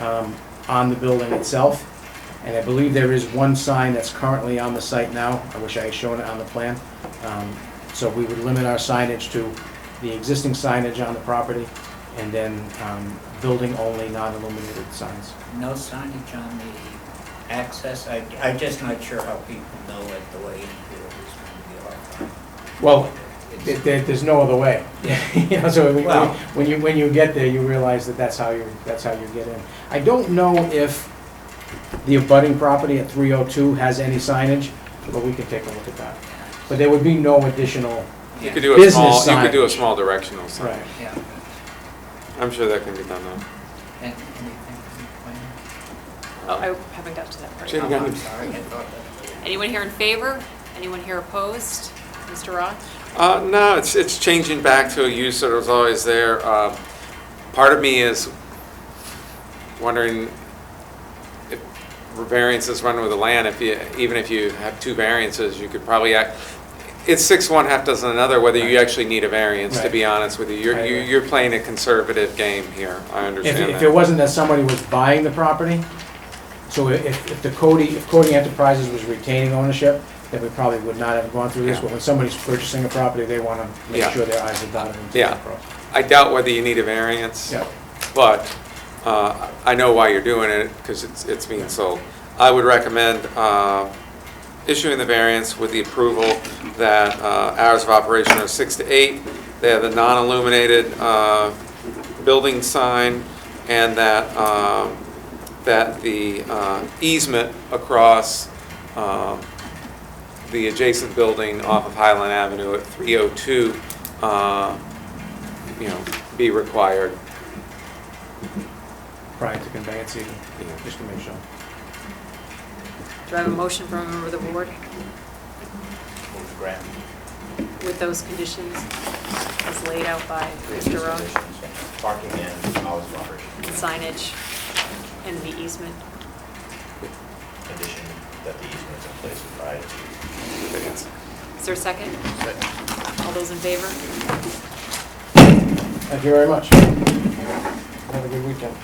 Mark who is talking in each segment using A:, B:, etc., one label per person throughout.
A: um, on the building itself. And I believe there is one sign that's currently on the site now. I wish I had shown it on the plan. Um, So we would limit our signage to the existing signage on the property and then um, building-only non-illuminated signs.
B: No signage on the access? I, I'm just not sure how people know it the way in here is going
A: Well,
B: to be
A: there-
B: off.
A: there- there's no other way. You know, so we- we-
B: Wow.
A: when you, when you get there, you realize that that's how you, that's how you get in. I don't know if the abutting property at 302 has any signage, but we can take a look at that. But there would be no additional,
C: You could
B: Yeah,
C: do a small,
A: Business
C: you could do a
A: signage.
C: small directional sign.
A: right.
B: yeah.
C: I'm sure that can be done now.
B: And anything from the plan?
D: Oh, I haven't got to that part.
C: Sure.
B: Oh,
C: you got
B: I'm
C: it.
B: sorry, I thought that.
D: Anyone here in favor? Anyone here opposed? Mr. Roth?
C: Uh, no, it's, it's changing back to a use that was always there. Uh, Part of me is wondering if variances run with the land, if you, even if you have two variances, you could probably act, it's six one, half dozen another, whether you actually need a variance, to be honest with you. You're,
A: Right,
C: you-
A: right.
C: you're playing a conservative game here, I
A: If,
C: understand
A: if it
C: that.
A: wasn't that somebody was buying the property, so if, if the Cody, if Cody Enterprises was retaining ownership, then we probably would not have gone through this,
C: Yeah.
A: but when somebody's purchasing a property, they wanna make
C: Yeah.
A: sure their eyes are dotted. and T's
C: Yeah.
A: are crossed.
C: I doubt whether you need a variance.
A: Yeah,
C: But uh, I know why you're doing it, because it's it's being sold. I would recommend uh, issuing the variance with the approval that uh, hours of operation are 6 to 8, they have the non-illuminated uh, building sign, and that, um, that the uh, easement across um, the adjacent building off of Highland Avenue at 302, uh, you know, be required.
A: prior to conveyance even,
C: Yeah.
A: just to make sure.
D: Do I have a motion from a member of the board
B: Move ground.
D: with those conditions as laid out by Mr. Roth?
E: Parking and hours of operation.
D: Signage and the easement?
E: Condition that the easement's in place prior to.
C: Variance.
D: Is there a second? All those in favor?
A: Thank you very much. Have a good weekend.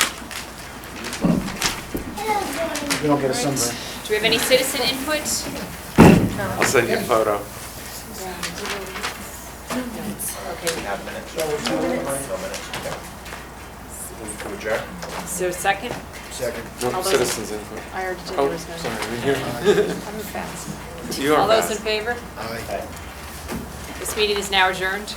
A: You don't get a sunburn.
D: Do we have any citizen input?
C: I'll send you a photo.
E: We have minutes? No minutes. okay. Move to adjourn?
D: Is there a second?
E: Second.
C: No,
D: All those-
C: citizens input.
D: I already did
C: Oh,
D: yours.
C: sorry, I'm here.
D: I'm fast.
C: You are
D: All those in
C: fast.
D: favor?
E: Aye.
D: This meeting is now adjourned.